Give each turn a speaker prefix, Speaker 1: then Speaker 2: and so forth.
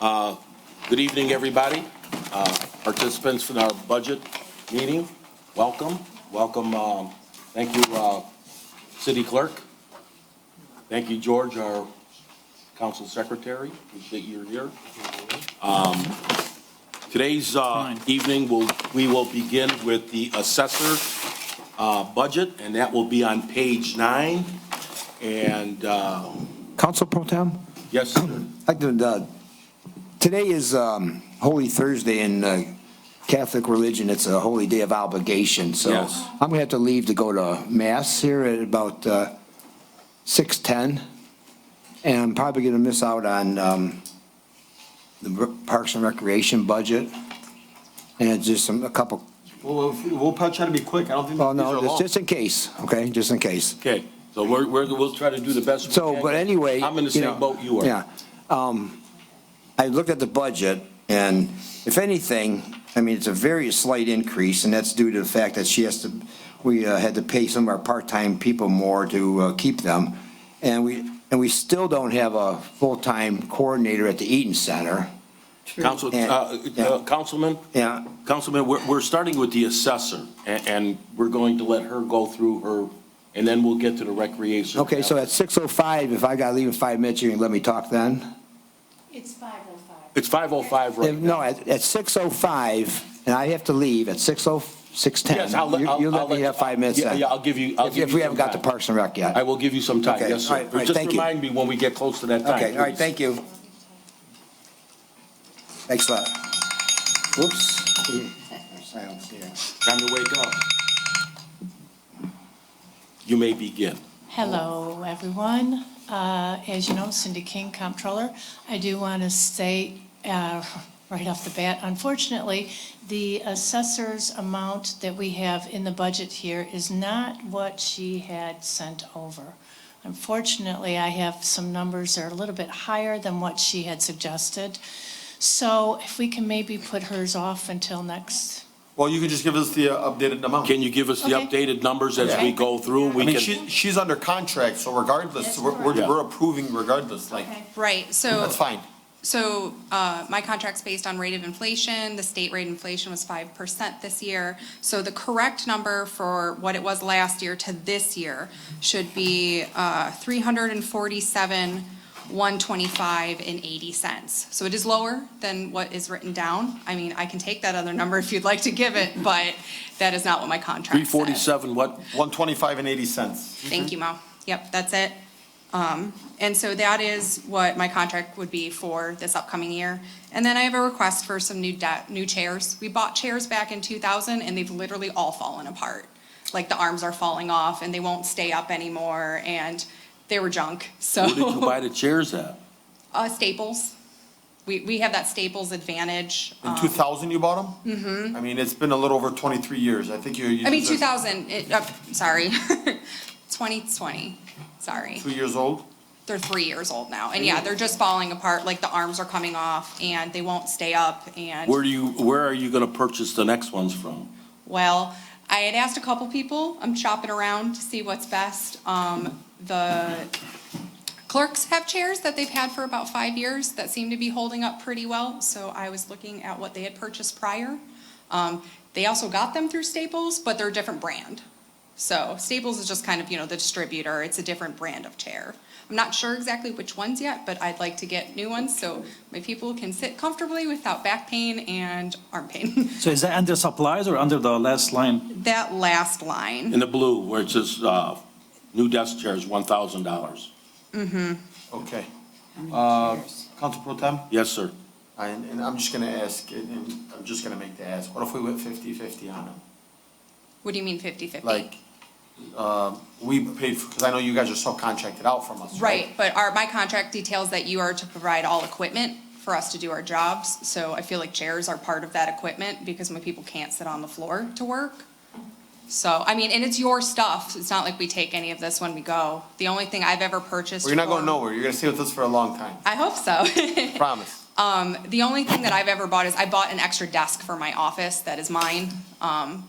Speaker 1: Uh, Good evening, everybody. Uh, Participants in our budget meeting, welcome, welcome. um, Thank you, uh, City Clerk. Thank you, George, our Council Secretary, that you're here. Um, Today's uh, evening, will- we will begin with the assessor uh, budget, and that will be on page nine. And, uh,
Speaker 2: Council Pro Tem,
Speaker 1: yes, sir.
Speaker 2: I'd like to, uh, today is um, Holy Thursday in uh, Catholic religion. It's a holy day of obligation, so
Speaker 1: Yes.
Speaker 2: I'm gonna have to leave to go to mass here at about uh, 6:10. And I'm probably gonna miss out on um, the Re- Parks and Recreation budget. And just some, a couple,
Speaker 1: Well, if- we'll probably try to be quick. I don't think these
Speaker 2: well,
Speaker 1: are
Speaker 2: Oh, no, just-
Speaker 1: long.
Speaker 2: just in case, okay, just in case.
Speaker 1: Okay, so we're, we're, we'll try to do the best we can.
Speaker 2: So, but anyway.
Speaker 1: I'm in the
Speaker 2: you know,
Speaker 1: same boat you are.
Speaker 2: Yeah. Um, I looked at the budget, and if anything, I mean, it's a very slight increase, and that's due to the fact that she has to, we uh, had to pay some of our part-time people more to uh, keep them. And we, and we still don't have a full-time coordinator at the Eaton Center.
Speaker 1: Council, uh,
Speaker 2: Yeah,
Speaker 1: uh,
Speaker 2: yeah.
Speaker 1: Councilman,
Speaker 2: Yeah,
Speaker 1: Councilman, we're, we're starting with the assessor, and, and we're going to let her go through her, and then we'll get to the recreation.
Speaker 2: okay, so at 6:05, if I gotta leave in five minutes, you can let me talk then?
Speaker 3: It's 505.
Speaker 1: It's 5:05
Speaker 2: If-
Speaker 1: right now.
Speaker 2: No, at, at 6:05, and I have to leave at 6:06, 6:10.
Speaker 1: Yes, I'll let-
Speaker 2: You-
Speaker 1: I'll-
Speaker 2: You
Speaker 1: I'll
Speaker 2: let me
Speaker 1: let-
Speaker 2: have five minutes
Speaker 1: Yeah,
Speaker 2: then.
Speaker 1: yeah, I'll give you- I'll
Speaker 2: If-
Speaker 1: give
Speaker 2: If
Speaker 1: you
Speaker 2: we haven't
Speaker 1: some
Speaker 2: got the
Speaker 1: time.
Speaker 2: Parks and Rec yet.
Speaker 1: I will give you some time,
Speaker 2: Okay,
Speaker 1: yes, sir.
Speaker 2: all right, all right,
Speaker 1: Just
Speaker 2: thank you.
Speaker 1: remind me when we get close to that time.
Speaker 2: Okay, all right,
Speaker 1: please.
Speaker 2: thank you. Thanks a lot. Whoops. I don't see it.
Speaker 1: Time to wake up. You may begin.
Speaker 3: Hello, everyone. Uh, As you know, Cindy King, Comptroller. I do want to state uh, right off the bat, unfortunately, the assessor's amount that we have in the budget here is not what she had sent over. Unfortunately, I have some numbers that are a little bit higher than what she had suggested. So if we can maybe put hers off until next
Speaker 4: Well, you can just give us the uh, updated amount.
Speaker 1: Can you give us the
Speaker 3: Okay.
Speaker 1: updated numbers as we
Speaker 3: Okay.
Speaker 1: go through?
Speaker 4: I
Speaker 1: We
Speaker 4: mean,
Speaker 1: can,
Speaker 4: she, she's under contract, so regardless,
Speaker 3: That's
Speaker 4: we're, we're
Speaker 1: correct.
Speaker 4: we're approving regardless, like,
Speaker 5: Right, so,
Speaker 4: that's fine.
Speaker 5: so uh, my contract's based on rate of inflation. The state rate inflation was 5% this year. So the correct number for what it was last year to this year should be uh, 347, 125 and 80 cents. So it is lower than what is written down. I mean, I can take that other number if you'd like to give it, but that is not what my contract says.
Speaker 1: 347, what?
Speaker 4: One twenty-five and eighty cents.
Speaker 5: Thank you, Mo. Yep, that's it. Um, And so that is what my contract would be for this upcoming year. And then I have a request for some new debt, new chairs. We bought chairs back in 2000, and they've literally all fallen apart. Like, the arms are falling off, and they won't stay up anymore, and they were junk, so.
Speaker 1: Where did you buy the chairs at?
Speaker 5: Uh, Staples. We, we have that Staples advantage. um,
Speaker 4: In two thousand you bought them? Mm-hmm. I mean, it's been a little over twenty-three years. I think you. you
Speaker 5: I mean,
Speaker 4: deserve-
Speaker 5: 2000, it, uh, sorry, 2020, sorry.
Speaker 4: Two years old?
Speaker 5: they're three years old now, and yeah, they're just falling apart. Like the arms are coming off, and they won't stay up. And
Speaker 1: Where do you, where are you gonna purchase the next ones from?
Speaker 5: well, I had asked a couple people. I'm shopping around to see what's best. Um, the clerks have chairs that they've had for about five years that seem to be holding up pretty well. So I was looking at what they had purchased prior. Um, they also got them through Staples, but they're a different brand. So Staples is just kind of, you know, the distributor. It's a different brand of chair. I'm not sure exactly which ones yet, but I'd like to get new ones so my people can sit comfortably without back pain and arm pain.
Speaker 6: So is that under supplies or under the last line?
Speaker 5: that last line.
Speaker 1: In the blue, where it says, uh, new desk chairs, one thousand dollars.
Speaker 4: Okay. Uh, Council Pro Tem?
Speaker 1: Yes, sir.
Speaker 4: And, and I'm just gonna ask, and, and I'm just gonna make the ask, what if we went fifty-fifty on them?
Speaker 5: What do you mean 50/50?
Speaker 4: Like, um, we paid, for because I know you guys are subcontracted out from us, right?
Speaker 5: Right, but our, my contract details that you are to provide all equipment for us to do our jobs. So I feel like chairs are part of that equipment because my people can't sit on the floor to work. So, I mean, and it's your stuff. It's not like we take any of this when we go. The only thing I've ever purchased.
Speaker 4: Well, you're not
Speaker 5: for-
Speaker 4: going nowhere. You're gonna stay with us for a long time,
Speaker 5: I hope so.
Speaker 4: promise.
Speaker 5: Um, the only thing that I've ever bought is I bought an extra desk for my office that is mine. Um,